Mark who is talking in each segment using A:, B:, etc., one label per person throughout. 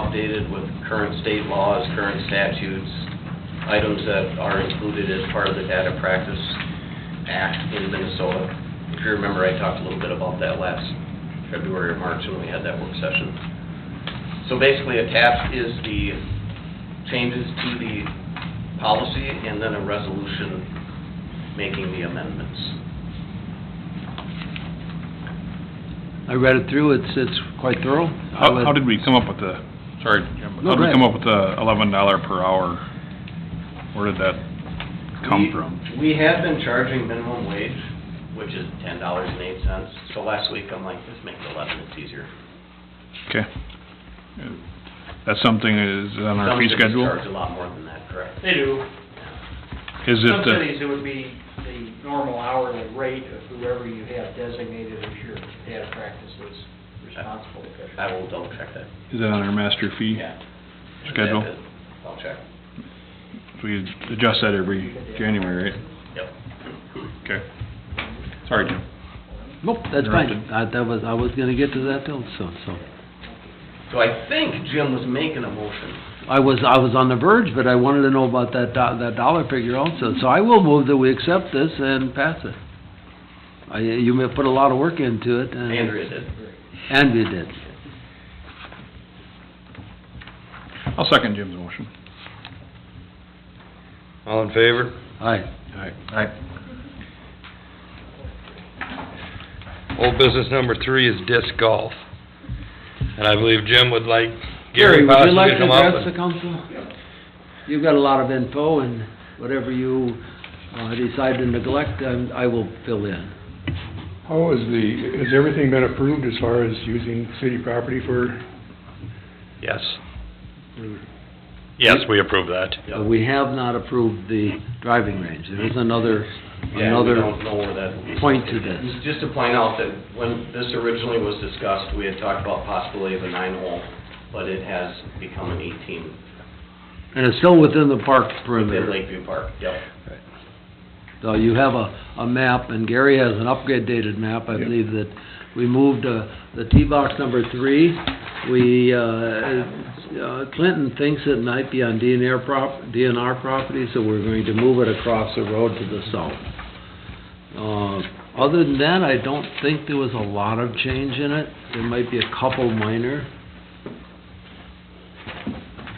A: updated with current state laws, current statutes, items that are included as part of the Data Practice Act in Minnesota. If you remember, I talked a little bit about that last February or March when we had that work session. So basically, attached is the changes to the policy and then a resolution making the amendments.
B: I read it through, it's, it's quite thorough.
C: How, how did we come up with the, sorry, Jim, but
B: No, go
C: how did we
B: ahead.
C: come up with the eleven dollar per hour? Where did that come
A: We-
C: from?
A: We have been charging minimum wage, which is ten dollars and eight cents. So last week, I'm like, let's make it eleven, it's easier.
C: Okay. That's something is on our fee
A: Some cities
C: schedule?
A: charge a lot more than that, correct?
D: They do.
C: Is
D: Some
C: it, uh,
D: cities,
C: the-
D: it would be the normal hourly rate of whoever you have designated as your data practices responsible official.
A: I will double check that.
C: is that on our master fee? Schedule?
A: That is- I'll check.
C: We adjust that every January, right?
A: Yep.
C: Okay. Sorry, Jim.
B: Nope, that's fine.
C: Interrupted.
B: I, that was, I was gonna get to that till, so, so.
A: So I think Jim was making a motion.
B: I was, I was on the verge, but I wanted to know about that, do- that dollar figure also. So I will move that we accept this and pass it. I, you may have put a lot of work into it and.
A: Andrea did.
B: And you did.
C: I'll second Jim's motion.
E: All in favor?
B: Aye.
C: Aye. Aye.
E: Old business number three is disc golf. And I believe Jim would like Gary
B: would you
E: possibly
B: like
E: to
B: to
E: come up
B: address the
E: and...
B: council? You've got a lot of info and whatever you, uh, decide to neglect, um, I will fill in.
F: How is the, has everything been approved as far as using city property for,
E: Yes. Yes, we approve that.
B: Uh, We have not approved the driving range. There is another,
A: Yeah, we
B: another,
A: don't know where that will be.
B: point to this.
A: Just to point out that when this originally was discussed, we had talked about possibility of a nine hole, but it has become an eighteen
B: and it's still within the park
A: within
B: perimeter.
A: Lakeview Park, yep.
B: So you have a, a map, and Gary has an updated map, I believe, that we moved, uh, the tee box number three. We, uh, uh, Clinton thinks it might be on DNR prop, DNR property, so we're going to move it across the road to the south. Uh, other than that, I don't think there was a lot of change in it. There might be a couple minor.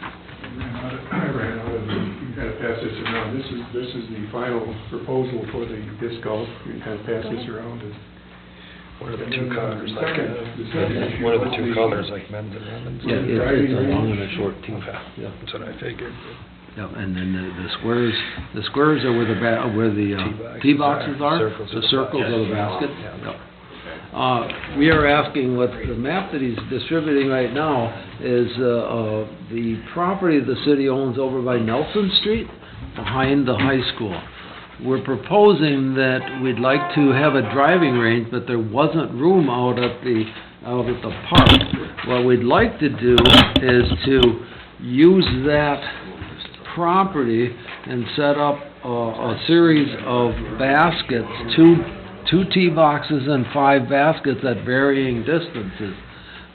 F: I ran out of, you kind of pass this around, this is, this is the final proposal for the disc golf, you kind of pass this around.
E: What
F: are the two colors, like, uh, the second-
E: What are the two colors, like men's and women's?
B: Yeah, it- it's a long and a short tee. Yeah.
E: That's what I figured.
B: Yeah, and then the, the squares, the squares are where the ba, where the, uh, tee boxes are,
E: Circles are
B: the
E: the
B: circles are the basket. Yep. Uh, we are asking what the map that he's distributing right now is, uh, uh, the property the city owns over by Nelson Street, behind the high school. We're proposing that we'd like to have a driving range, but there wasn't room out at the, out at the park. What we'd like to do is to use that property and set up a, a series of baskets, two, two tee boxes and five baskets at varying distances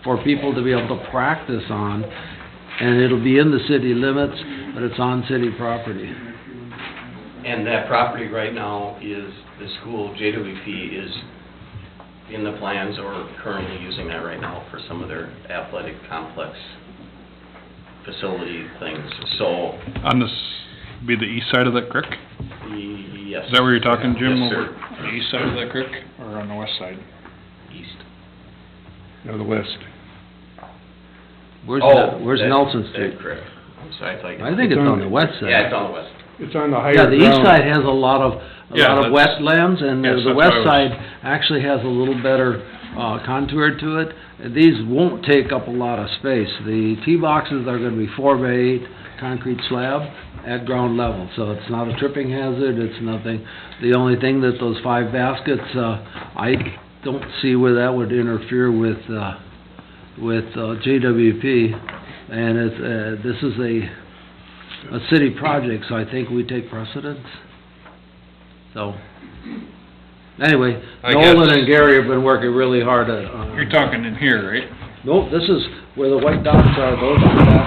B: for people to be able to practice on, and it'll be in the city limits, but it's on city property.
A: And that property right now is, the school, JWP, is in the plans or currently using that right now for some of their athletic complex facility things. So,
C: On this, be the east side of that creek?
A: yes.
C: Is that where you're talking, Jim?
A: Yes,
C: Over
A: sir.
C: The east side of that creek or on the west side?
A: East.
F: No, the west.
B: Where's,
A: Oh,
B: Nel- where's
A: that-
B: Nelson
A: that-
B: Street?
A: Correct. I'm sorry, I thought you.
B: I think it's on the west
A: Yeah, it's
B: side.
A: on the west.
F: It's on the higher
B: Yeah,
F: ground.
B: the east side has a lot of, a
C: Yeah,
B: lot of
C: that's-
B: wetlands, and
C: Yes,
B: the- the
C: that's what I
B: west
C: was-
B: side actually has a little better uh, contour to it. These won't take up a lot of space. The tee boxes are gonna be four by eight concrete slab at ground level, so it's not a tripping hazard, it's nothing. The only thing that those five baskets, uh, I don't see where that would interfere with, uh, with uh, JWP, and it's, uh, this is a, a city project, so I think we take precedence. So, anyway,
E: I guess-
B: Nolan and Gary have been working really hard at, on.
C: You're talking in here, right?
B: Nope, this is where the white dots are, those are dots